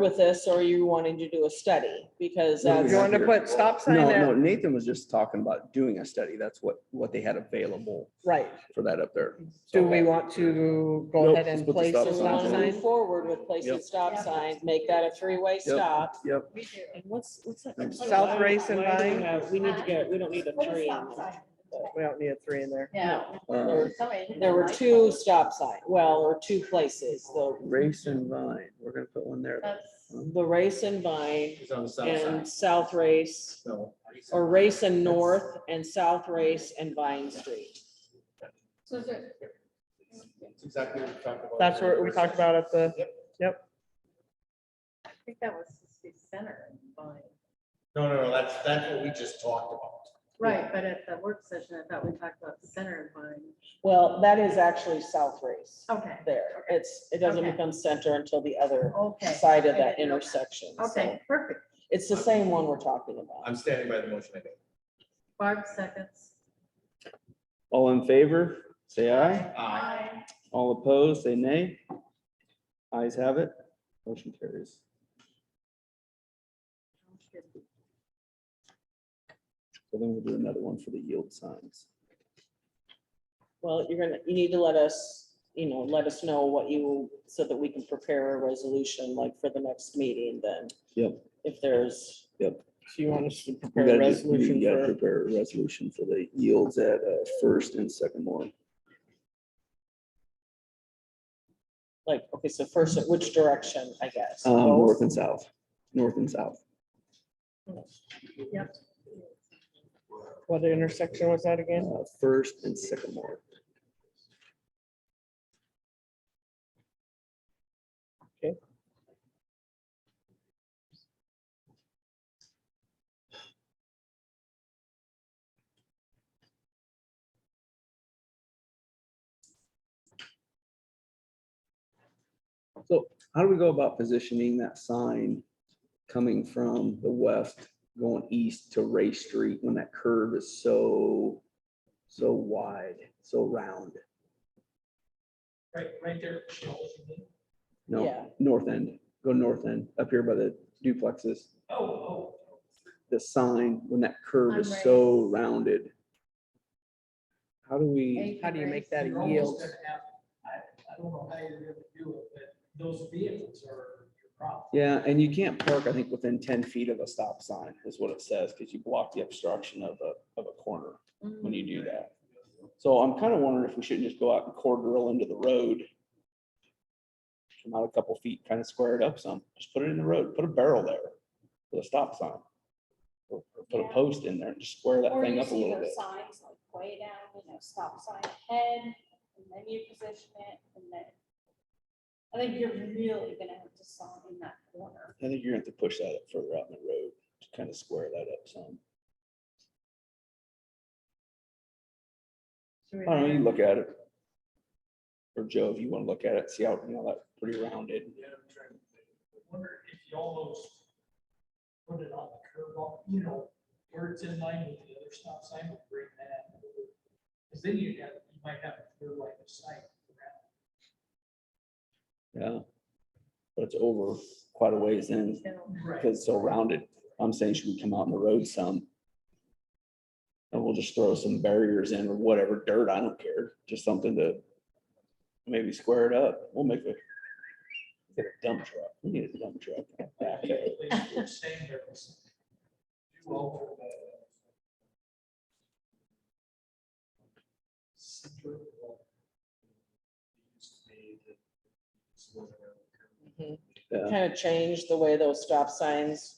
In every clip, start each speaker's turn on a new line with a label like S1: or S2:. S1: with this or are you wanting to do a study? Because
S2: No, we
S1: that's,
S3: You want to put stop sign
S2: No, no,
S3: there?
S2: Nathan was just talking about doing a study. That's what, what they had available
S3: Right.
S2: for that up there.
S3: Do we want to go
S2: Nope,
S3: ahead
S2: let's put
S3: and
S2: the
S3: place
S2: stop
S3: a
S1: just
S2: sign
S3: stop
S1: want to
S2: there.
S3: sign?
S1: move forward with placing
S2: Yep.
S1: stop signs, make that a three-way stop.
S2: Yep.
S4: And what's, what's that?
S2: Thanks.
S3: South Race and
S4: Why do we
S3: Vine?
S4: have- We need to get, we don't need a
S5: Put a
S4: tree.
S5: stop sign.
S3: We don't need a three in there.
S5: No.
S2: Uh,
S1: There were two stop signs, well, or two places, the,
S2: Race and Vine, we're gonna put one there.
S5: That's-
S1: the race and Vine
S6: It's on the south side,
S1: and South Race,
S6: so.
S1: or Race and North and South Race and Vine Street.
S5: So is there,
S6: It's Exactly what we talked about.
S3: That's what we talked about at the,
S5: I think that was the center and Vine.
S6: No, no, no, that's, that's what we just talked about.
S5: Right, but at the work session, I thought we talked about the center and
S1: Well, that is actually South Race
S5: Vine. Okay,
S1: there. It's, it doesn't
S5: Okay.
S1: become center until the other
S5: okay.
S1: side of
S5: I
S1: that
S5: didn't know
S1: intersection. so
S5: Okay, perfect.
S1: It's the same one we're talking about.
S6: I'm standing by the motion I made.
S5: Barb seconds.
S2: All in favor, say aye.
S6: Aye.
S2: All opposed, say nay. Ayes have it. Motion carries. So then we'll do another one for the yield signs.
S1: Well, you're gonna, you need to let us, you know, let us know what you, so that we can prepare a resolution like for the next meeting then.
S2: Yep.
S1: If there's,
S3: so you want us to
S2: We
S3: prepare a
S2: gotta just, we
S3: resolution
S2: gotta
S3: for,
S2: prepare a resolution for the yields at uh, First and Second um, Moore.
S1: like, okay, so first, which direction, I guess?
S2: Um,
S1: Both?
S2: north and south, north and south.
S5: Yep.
S3: what intersection was that again?
S2: uh, First and Sycamore.
S3: Okay.
S2: So how do we go about positioning that sign coming from the west, going east to Ray Street when that curve is so, so wide, so round?
S7: Right, right there.
S2: No,
S1: Yeah.
S2: north end, go north end, up here by the duplexes,
S7: Oh, oh.
S2: the sign, when that curve
S5: On
S2: is
S5: Ray.
S2: so rounded. How do we,
S3: How do you make that
S7: You're
S3: a
S7: almost
S3: yield?
S7: gonna have- I, I don't know how you're gonna do it, but those vehicles are your problem.
S2: yeah, and you can't park, I think, within ten feet of a stop sign is what it says, because you block the obstruction of a, of a corner. when you do that. So I'm kind of wondering if we shouldn't just go out and core drill into the road. Come out a couple feet, kind of square it up some, just put it in the road, put a barrel there with a stop sign. Or or put a
S8: Yeah.
S2: post in there and just square that
S8: Or
S2: thing
S8: you
S2: up a
S8: see
S2: little
S8: those
S2: bit.
S8: Signs like way down, you know, stop sign ahead, and then you position it, and then. I think you're really gonna have to sign in that corner.
S2: I think you're gonna have to push that up further out in the road to kind of square that up some.
S5: Should we
S2: I don't know, you
S5: hire-
S2: look at it. Or Joe, if you want to look at it, see how, you know, that's pretty rounded.
S7: Yeah, I'm trying to think. I Wonder if you almost put it on the curb, on- you know, where it's in line with the other stop sign, would bring that. over. Cause then you'd have, you might have a clear line of sight around.
S2: Yeah. But it's over quite a ways in.
S5: No.
S2: because it's so rounded. I'm saying should we come out on the road some? And we'll just throw some barriers in or whatever dirt, I don't care, just something to maybe square it up. We'll make a get a dump truck. We need a dump truck. backhoe.
S7: You're saying there was. You alter the. Center of the. Used to be the. this was around the curve.
S2: Yeah.
S1: Kind of Mm-hmm. change the way those stop signs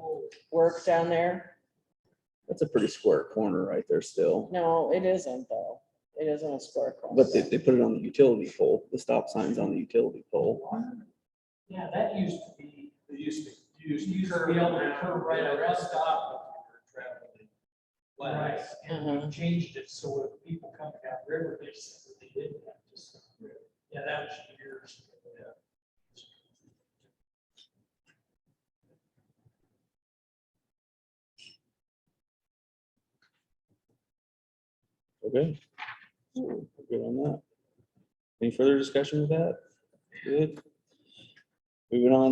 S7: Oh,
S1: work down there?
S2: That's a pretty square corner right there still.
S1: No, it isn't though. It isn't a square. cross.
S2: But they, they put it on the utility pole, the stop sign's on the utility pole.
S7: yeah, that used to be,
S6: It used to, be- it used to.
S7: used to be able to curve right around stop. Right, and
S1: Uh-huh.
S7: we changed it so if people coming down river, they said that they didn't have to. stop. Yeah, that was years. ago.
S2: Okay. Ooh, Good on that. Any further discussion with that? Good. Moving on